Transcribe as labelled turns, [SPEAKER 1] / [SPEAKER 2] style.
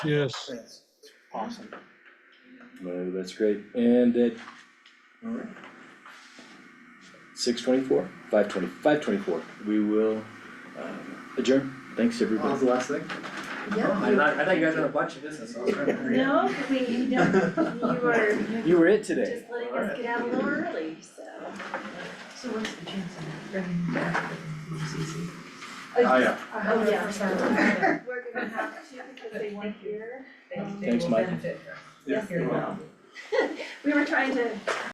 [SPEAKER 1] Yes,
[SPEAKER 2] That's awesome.
[SPEAKER 3] No, that's great, and at
[SPEAKER 2] Alright,
[SPEAKER 3] six twenty-four, five twenty, five twenty-four, we will um, adjourn, thanks
[SPEAKER 2] what was
[SPEAKER 3] everybody.
[SPEAKER 2] the last thing? I
[SPEAKER 4] Yeah,
[SPEAKER 2] thought, I thought you guys had a bunch of business, I was trying to
[SPEAKER 4] you-
[SPEAKER 2] figure it out.
[SPEAKER 4] no, we, you know, you were,
[SPEAKER 3] You were it
[SPEAKER 4] you're
[SPEAKER 3] today,
[SPEAKER 4] just letting us get out a little early, so.
[SPEAKER 5] So what's the chance of bringing back the CC?
[SPEAKER 2] Oh, yeah.
[SPEAKER 4] Oh, yeah.
[SPEAKER 5] yeah.
[SPEAKER 4] We're gonna have to because they weren't here.
[SPEAKER 3] Thanks, Michael.
[SPEAKER 5] Yes,
[SPEAKER 2] Yeah,
[SPEAKER 5] you're
[SPEAKER 2] you're welcome.
[SPEAKER 5] welcome.
[SPEAKER 4] We were trying to